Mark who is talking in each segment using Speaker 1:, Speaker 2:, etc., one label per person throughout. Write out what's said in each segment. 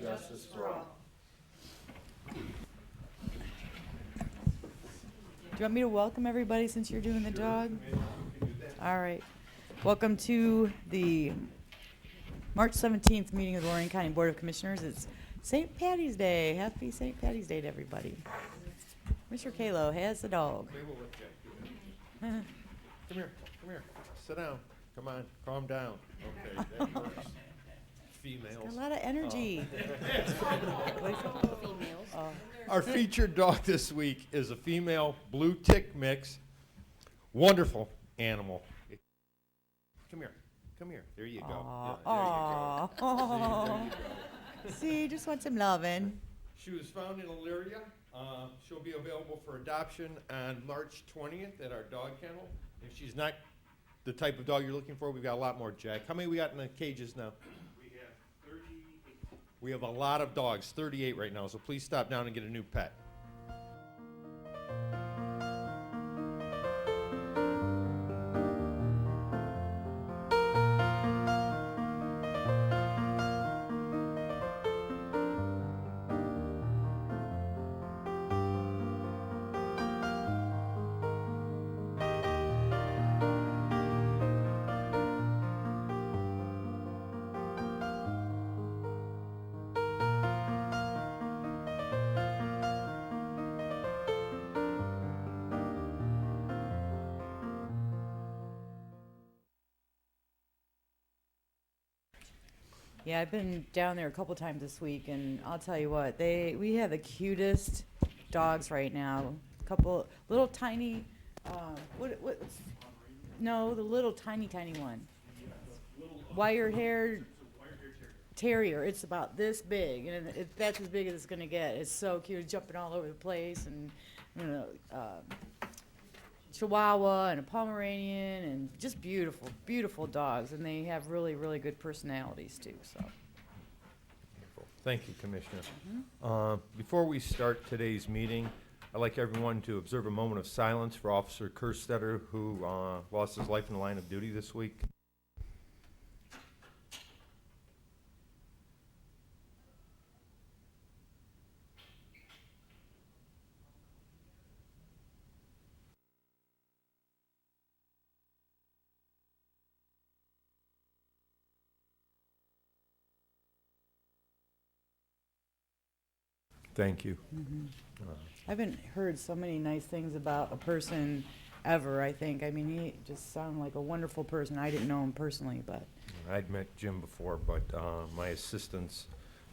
Speaker 1: justice for all.
Speaker 2: Do you want me to welcome everybody since you're doing the dog? All right. Welcome to the March 17th meeting of the Lorraine County Board of Commissioners. It's St. Patty's Day. Happy St. Patty's Day to everybody. Mr. Kalo has the dog.
Speaker 1: We will let Jack do it. Come here, come here, sit down, come on, calm down. Okay, that works.
Speaker 2: Got
Speaker 1: Females.
Speaker 2: a lot of energy. Oh,
Speaker 1: Our featured dog this week is a female blue tick mix. Wonderful animal. Come here, come here, there you go. Yeah, there you go.
Speaker 2: Aw. Aw. See, just want some loving.
Speaker 1: She was found in Elyria. Uh, she'll be available for adoption on March 20th at our dog kennel. If she's not the type of dog you're looking for, we've got a lot more, Jack. How many we got in the cages now? We have 38. We have a lot of dogs, 38 right now, so please stop down and get a new pet.
Speaker 2: Yeah, I've been down there a couple times this week, and I'll tell you what, they we have the cutest dogs right now. A couple little tiny, um, what what? No, the little tiny tiny one. Wire haired terrier. It's about this big, and it, it- that's as big as it's gonna get. It's so cute, jumping all over the place, and you know. Um, Chihuahua and a Pomeranian and just beautiful, beautiful dogs. And they have really, really good personalities too. So,
Speaker 1: Thank you, Commissioner. Uh, Before we start today's meeting, I'd like everyone to observe a moment of silence for Officer Kerstetter, who uh, lost his life in the line of duty this week. Thank you.
Speaker 2: I haven't heard so many nice things about a person ever, I think. I mean, he just sounded like a wonderful person. I didn't know him personally, but
Speaker 1: I'd met Jim before, but uh, my assistant's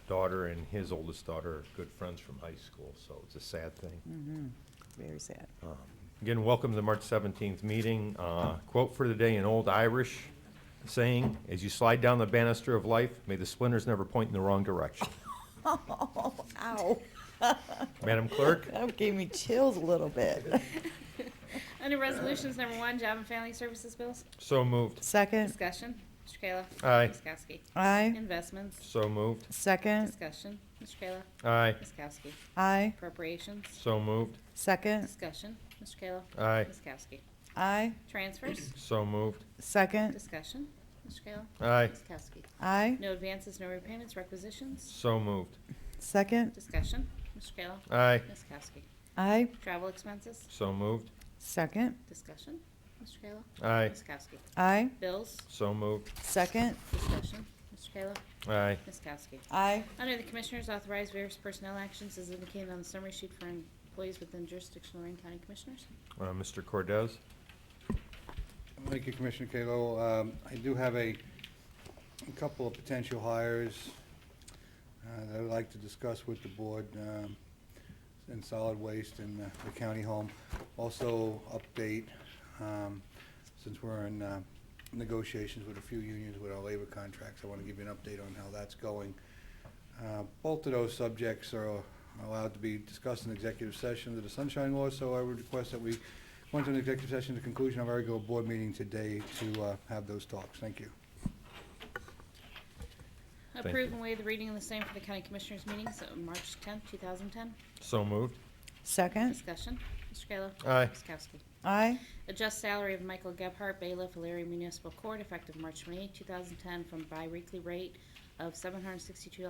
Speaker 1: daughter and his oldest daughter are good friends from high school, so it's a sad thing.
Speaker 2: very sad.
Speaker 1: Again, welcome to the March 17th meeting. Uh, Quote for the day, an old Irish saying, "As you slide down the banister of life, may the splinters never point in the wrong direction."
Speaker 2: Oh, ow.
Speaker 1: Madam Clerk?
Speaker 2: That gave me chills a little bit.
Speaker 3: Under Resolutions Number One, Job and Family Services Bills.
Speaker 1: So moved.
Speaker 2: Second.
Speaker 3: Discussion. Mr. Kayla.
Speaker 1: Aye.
Speaker 3: Ms. Kowski.
Speaker 2: Aye.
Speaker 3: Investments.
Speaker 1: So moved.
Speaker 2: Second.
Speaker 3: Discussion. Mr. Kayla.
Speaker 1: Aye.
Speaker 3: Ms. Kowski.
Speaker 2: Aye.
Speaker 3: Appropriations.
Speaker 1: So moved.
Speaker 2: Second.
Speaker 3: Discussion. Mr. Kayla.
Speaker 1: Aye.
Speaker 3: Ms. Kowski.
Speaker 2: Aye.
Speaker 3: Transfers.
Speaker 1: So moved.
Speaker 2: Second.
Speaker 3: Discussion. Mr. Kayla.
Speaker 1: Aye.
Speaker 3: Ms. Kowski.
Speaker 2: Aye.
Speaker 3: No advances, no repayments, requisitions.
Speaker 1: So moved.
Speaker 2: Second.
Speaker 3: Discussion. Mr. Kayla.
Speaker 1: Aye.
Speaker 3: Ms. Kowski.
Speaker 2: Aye.
Speaker 3: Travel expenses.
Speaker 1: So moved.
Speaker 2: Second.
Speaker 3: Discussion. Mr. Kayla.
Speaker 1: Aye.
Speaker 3: Ms. Kowski.
Speaker 2: Aye.
Speaker 3: Bills.
Speaker 1: So moved.
Speaker 2: Second.
Speaker 3: Discussion. Mr. Kayla.
Speaker 1: Aye.
Speaker 3: Ms. Kowski.
Speaker 2: Aye.
Speaker 3: Under the Commissioners, authorize various personnel actions as indicated on the summary sheet for employees within jurisdiction of Lorraine County Commissioners.
Speaker 1: Uh, Mr. Cordez?
Speaker 4: Thank you, Commissioner Kalo. Um, I do have a, a couple of potential hires uh, that I'd like to discuss with the board um, in solid waste and uh, the county home. Also, update, um, since we're in uh, negotiations with a few unions with our labor contracts, I want to give you an update on how that's going. Uh, Both of those subjects are allowed to be discussed in executive session under the Sunshine Law, so I would request that we went to an executive session at the conclusion of our regular board meeting today to uh, have those talks. Thank you.
Speaker 1: you.
Speaker 3: Approve and waive the reading of the same for the County Commissioners meetings of March 10, 2010.
Speaker 1: So moved.
Speaker 2: Second.
Speaker 3: Discussion. Mr. Kayla.
Speaker 1: Aye.
Speaker 3: Ms. Kowski.
Speaker 2: Aye.
Speaker 3: Adjust salary of Michael Gebhardt, bailiff, Alariah Municipal Court, effective March 28, 2010, from biweekly rate of $762